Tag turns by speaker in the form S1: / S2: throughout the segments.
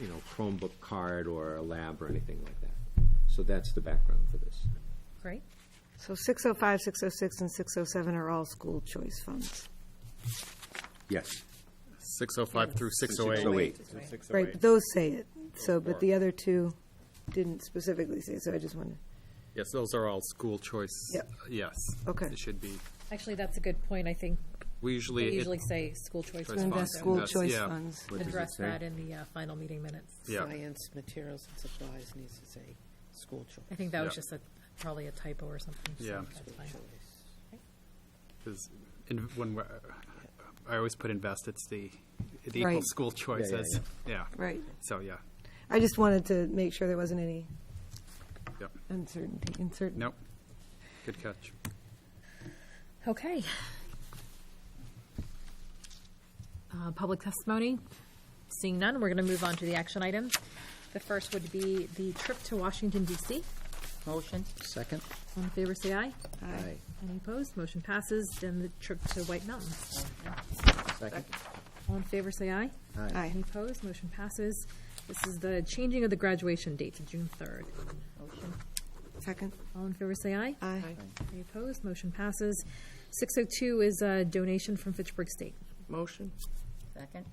S1: you know, Chromebook card or a lab or anything like that. So that's the background for this.
S2: Great.
S3: So 605, 606, and 607 are all school choice funds.
S1: Yes.
S4: 605 through 608.
S1: 608.
S3: Right, but those say it, so, but the other two didn't specifically say, so I just wanted,
S4: Yes, those are all school choice.
S3: Yep.
S4: Yes.
S3: Okay.
S4: It should be.
S2: Actually, that's a good point, I think.
S4: We
S2: They
S4: usually. it-
S2: usually say school choice.
S4: Choice
S2: funds,
S4: invest
S2: so
S4: school That's- choice yeah.
S3: funds.
S1: What does it
S2: Address
S1: say?
S2: that in the uh, final meeting minutes.
S4: Yeah.
S5: Science, materials, and supplies needs to say school
S2: I
S5: choice.
S2: think that was
S4: Yeah.
S2: just a, probably a typo or something. so
S4: Yeah.
S2: that's fine.
S4: Because in, when we're, I always put invest, it's the, it
S3: Right.
S4: equals school choice
S1: yeah,
S4: as, yeah.
S3: Right.
S4: So, yeah,
S3: I just wanted to make sure there wasn't any
S4: Yep.
S3: uncertainty, uncertainty.
S4: nope. Good catch.
S2: Okay. Uh, Public testimony, seeing none, we're going to move on to the action item. The first would be the trip to Washington DC.
S5: Motion?
S6: Second?
S2: All in favor, say aye.
S6: Aye.
S2: Any opposed? Motion passes. Then the trip to White Mountains.
S6: Second?
S2: All in favor, say aye.
S3: Aye.
S2: Any opposed? Motion passes. This is the changing of the graduation date to June 3rd.
S5: Motion.
S3: Second?
S2: All in favor, say aye.
S3: Aye.
S2: Any opposed? Motion passes. 602 is a donation from Fitchburg State.
S5: Motion? Second?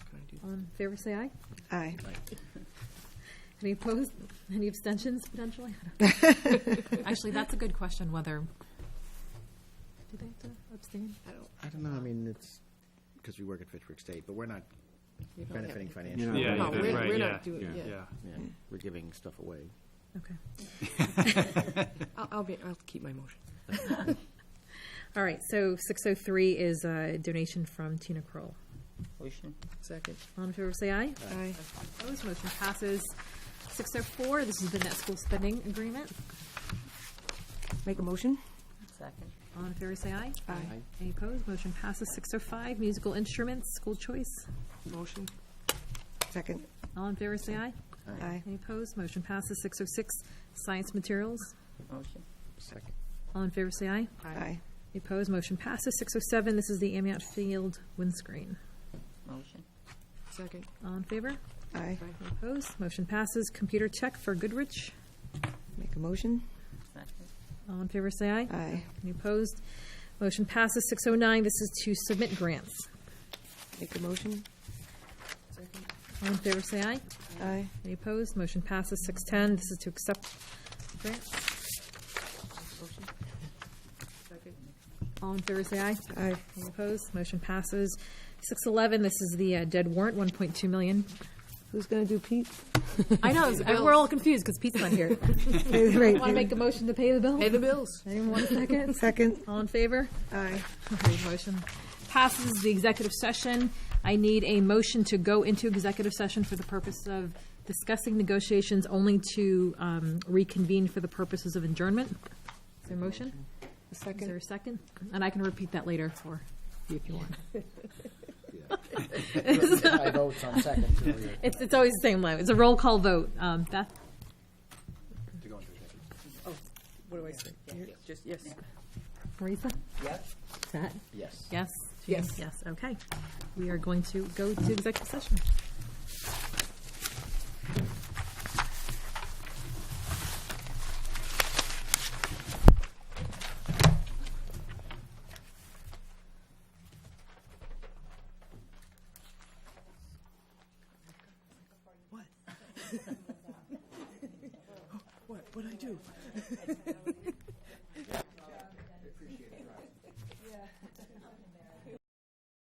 S5: Oh,
S2: All in favor, say aye.
S3: Aye.
S2: Any opposed? Any abstentions potentially? Actually, that's a good question, whether, do they have to abstain?
S6: I don't know, I mean, it's, because we work at Fitchburg State, but we're not benefiting
S1: No.
S6: financially.
S1: Yeah,
S5: No,
S1: yeah,
S5: Oh, we're,
S4: right,
S5: we're
S4: yeah,
S5: not doing,
S1: yeah.
S5: yeah.
S6: Yeah, We're giving stuff away.
S2: Okay.
S5: I'll, I'll be, I'll keep my motion.
S2: All right, so 603 is a donation from Tina Kroll.
S5: Motion? Second?
S2: All in favor, say aye.
S3: Aye.
S2: Opposed, motion passes. 604, this is the net school spending agreement.
S3: Make a motion?
S5: Second.
S2: All in favor, say aye.
S3: Aye.
S2: Any opposed, motion passes. 605, musical instruments, school choice.
S5: Motion?
S3: Second?
S2: All in favor, say aye.
S3: Aye.
S2: Any opposed, motion passes. 606, science materials.
S5: Motion.
S6: Second.
S2: All in favor, say aye.
S3: Aye.
S2: Any opposed, motion passes. 607, this is the Amiot Field windscreen.
S5: Motion? Second.
S2: All in favor?
S3: Aye.
S2: Any opposed, motion passes. Computer check for Goodrich.
S3: Make a motion?
S5: Second.
S2: All in favor, say aye.
S3: Aye.
S2: Any opposed? Motion passes. 609, this is to submit grants.
S3: Make a motion?
S5: Second.
S2: All in favor, say aye.
S3: Aye.
S2: Any opposed? Motion passes. 610, this is to accept grants.
S5: Motion? Second.
S2: All in favor, say aye.
S3: Aye.
S2: Any opposed? Motion passes. 611, this is the uh, dead warrant, 1.2 million.
S3: Who's going to do Pete?
S2: I know, we're all confused because Pete's not here.
S3: Right.
S2: Want to make a motion to pay the bill?
S5: Pay the bills.
S2: Anyone want a second?
S3: Second?
S2: All in favor?
S3: Aye.
S2: Okay, motion passes the executive session. I need a motion to go into executive session for the purpose of discussing negotiations only to um, reconvene for the purposes of adjournment. Is there a motion?
S3: A
S2: Is there
S3: second?
S2: a second? And I can repeat that later for you if you want.
S6: I vote on second. so we're-
S2: It's, it's always the same way. It's a roll call vote. Um, Beth?
S5: Oh, What do I say? Just, yes.
S2: Marisa?
S5: Yes.
S2: Matt?
S6: Yes.
S2: Yes?
S5: Yes.
S2: Yes, okay. We are going to go to executive session.
S5: What, what'd I do?